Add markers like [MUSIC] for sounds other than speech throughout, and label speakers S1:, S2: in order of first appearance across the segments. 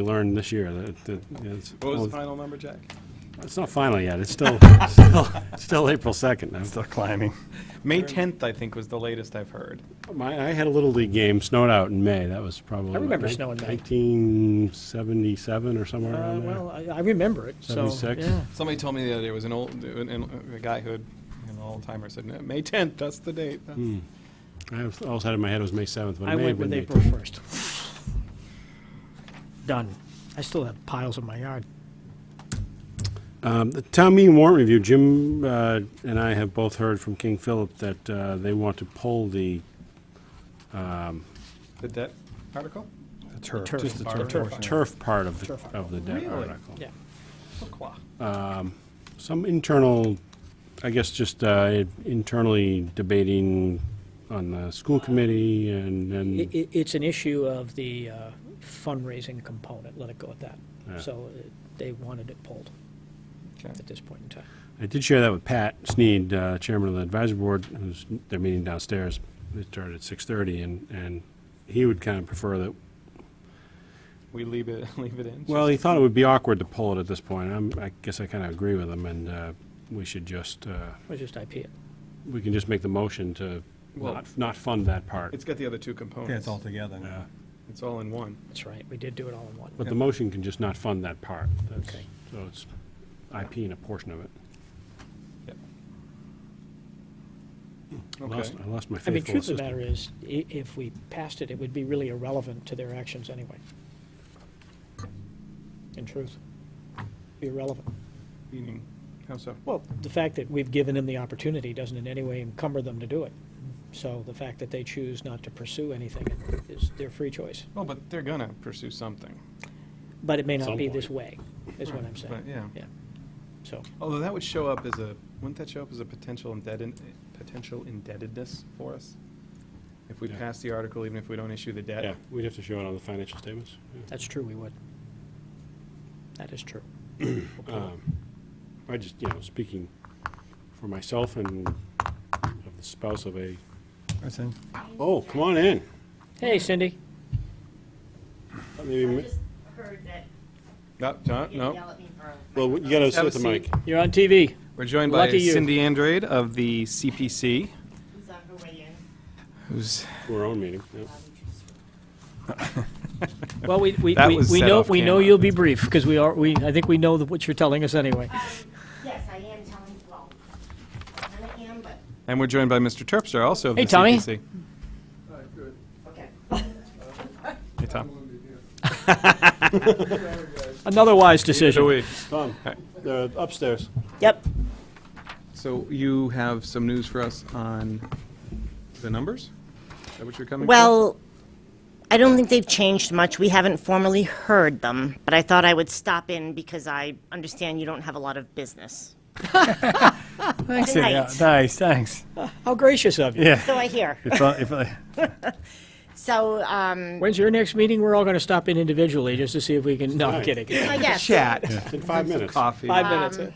S1: we learned this year that, that, you know, it's,
S2: What was the
S1: well,
S2: final number, Jack?
S1: it's not final yet, it's
S2: [LAUGHS]
S1: still, still, still April second.
S3: Still climbing.
S2: May 10th, I think, was the latest I've heard.
S1: My, I had a little league game snowed out in May, that was probably.
S4: I remember snow in May.
S1: Nineteen seventy-seven or somewhere
S4: Uh,
S1: around there.
S4: Well, I I remember it, so.
S1: 76?
S4: yeah.
S2: Somebody told me the other day, it was an old, an- an- a guy who had, an old timer said, "No, May 10th, that's the date. That's-
S1: I was- always had in my head it was May seventh, but
S4: I
S1: it may have
S4: went
S1: been
S4: with
S1: May.
S4: April 1st. Done. I still have piles in my yard.
S1: Um, The town meeting warrant review, Jim uh, and I have both heard from King Philip that uh, they want to pull the,
S2: The debt article?
S3: The turf.
S4: turf.
S3: Just the
S2: Borrow
S3: turf
S2: turf.
S3: portion.
S1: turf part of, the
S4: Turf article.
S1: of the debt
S2: Really?
S1: article.
S4: Yeah.
S2: Pourquoi?
S1: Some internal, I guess, just uh, internally debating on the school committee and,
S4: I
S1: and
S4: i it's an issue of the uh, fundraising component, let it go at that.
S1: Yeah.
S4: So uh, they wanted it pulled
S2: Okay.
S4: at this point in time.
S1: I did share that with Pat Sneed, uh, chairman of the advisory board, who's, they're meeting downstairs. It started at 6:30 and, and he would kind of prefer that
S2: We leave it, [LAUGHS] leave it in?
S1: Well, he thought it would be awkward to pull it at this point. I'm, I guess I kind of agree with him, and uh, we should just, uh,
S4: It was just IP it.
S1: we can just make the motion to
S2: Well-
S1: not, not fund that part.
S2: It's got the other two components.
S3: Yeah, it's all together
S1: Yeah.
S3: now.
S2: It's all in one.
S4: That's right, we did do it all in one.
S1: But the motion can just not fund that part. That's-
S4: Okay.
S1: So it's IP and a portion of it.
S2: Yep.
S1: I lost-
S2: Okay.
S1: I lost my
S4: I mean,
S1: faithful
S4: truth of the
S1: assistant.
S4: matter is, i- if we passed it, it would be really irrelevant to their actions anyway. In truth, be irrelevant.
S2: Meaning, how so?
S4: Well, the fact that we've given them the opportunity doesn't in any way encumber them to do it. So the fact that they choose not to pursue anything is their free choice.
S2: Well, but they're gonna pursue something.
S4: But it may not
S1: Some
S4: be
S1: point.
S4: this way, is what I'm
S2: But,
S4: saying.
S2: yeah.
S4: Yeah. So,
S2: Although that would show up as a, wouldn't that show up as a potential indebted, potential indebtedness for us? If we
S1: Yeah.
S2: pass the article, even if we don't issue the debt?
S1: Yeah, we'd have to show it on the financial statements. yeah.
S4: that's true, we would. That is true.
S1: I just, you know, speaking for myself and of the spouse of a,
S3: That's in.
S1: oh, come on in.
S4: Hey, Cindy.
S1: Let
S5: I
S1: me-
S5: just heard that
S2: No, no,
S5: you
S2: no.
S5: yell at me for.
S1: Well, you gotta sit
S2: Have a
S1: with the mic.
S2: seat.
S4: You're on TV.
S2: We're joined by
S4: Lucky you.
S2: Cindy Andrade of the CPC,
S5: Who's on her way in?
S2: who's,
S1: To our own meeting, yeah.
S5: Um, just-
S4: Well, we, we,
S2: That
S4: we-
S2: was
S4: we
S2: set
S4: know,
S2: off
S4: we know
S2: camera.
S4: you'll be brief, because we are, we, I think we know that what you're telling us anyway.
S5: Um, Yes, I am telling, well, I kinda am, but,
S2: and we're joined by Mr. Terpstra, also of the
S4: Hey, Tommy.
S2: CPC.
S5: okay.
S2: Hey, Tom.
S4: Another wise decision.
S1: Tom, they're upstairs.
S4: Yep.
S2: So you have some news for us on the numbers? Is that what you're coming for?
S5: Well, I don't think they've changed much. We haven't formally heard them, but I thought I would stop in because I understand you don't have a lot of business.
S3: [LAUGHS] Thanks,
S5: Good
S3: Cindy.
S5: night.
S3: Nice, thanks.
S4: How gracious
S2: [LAUGHS]
S4: of you.
S3: Yeah.
S5: So I hear.
S3: If I- if I-
S5: So, um,
S4: When's your next meeting? We're all going to stop in individually just to see if we can, no, I'm kidding.
S5: I guess.
S2: Chat,
S1: In five minutes.
S2: coffee.
S4: Five minutes. eh?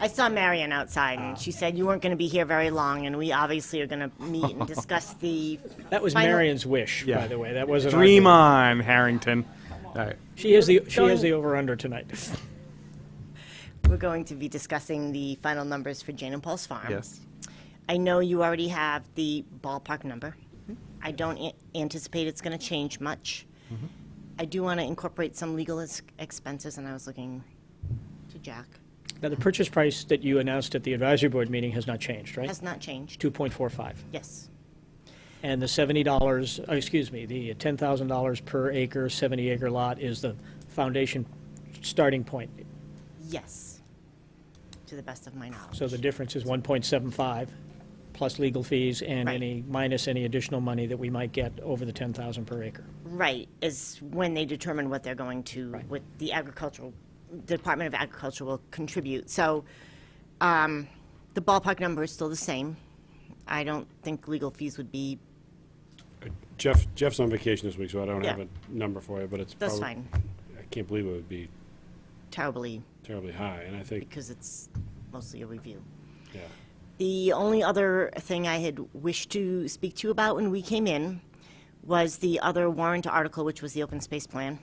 S5: I saw Marion outside, and she said you weren't going to be here very long, and we obviously are going to meet and discuss the.
S4: That was
S5: final-
S4: Marion's wish, by
S2: Yeah.
S4: the way. That wasn't. our
S2: Dream
S4: goal.
S2: on, Harrington. All right.
S4: She is the, she is
S5: Going-
S4: the over-under tonight.
S5: We're going to be discussing the final numbers for Jane and Paul's farm.
S2: Yes.
S5: I know you already have the ballpark number. Mm-hmm. I don't a- anticipate it's going to change much. I do want to incorporate some legal ex- expenses, and I was looking to Jack.
S4: Now, the purchase price that you announced at the advisory board meeting has not changed, right?
S5: Has not changed.
S4: 2.45.
S5: Yes.
S4: And the $70, oh, excuse me, the $10,000 per acre, 70-acre lot is the foundation starting point.
S5: Yes. To the best of my knowledge.
S4: So the difference is 1.75 plus legal fees and
S5: Right.
S4: any, minus any additional money that we might get over the 10,000 per acre.
S5: Right, is when they determine what they're going to,
S4: Right.
S5: what the agricultural, Department of Agriculture will contribute. So, um, the ballpark number is still the same. I don't think legal fees would be,
S1: Jeff, Jeff's on vacation this week, so I don't have
S5: Yeah.
S1: a number for you, but it's
S5: that's
S1: probably.
S5: fine,
S1: I can't believe it would be
S5: terribly,
S1: terribly high, and I think,
S5: because it's mostly a review.
S1: yeah.
S5: The only other thing I had wished to speak to you about when we came in was the other warrant article, which was the open space plan.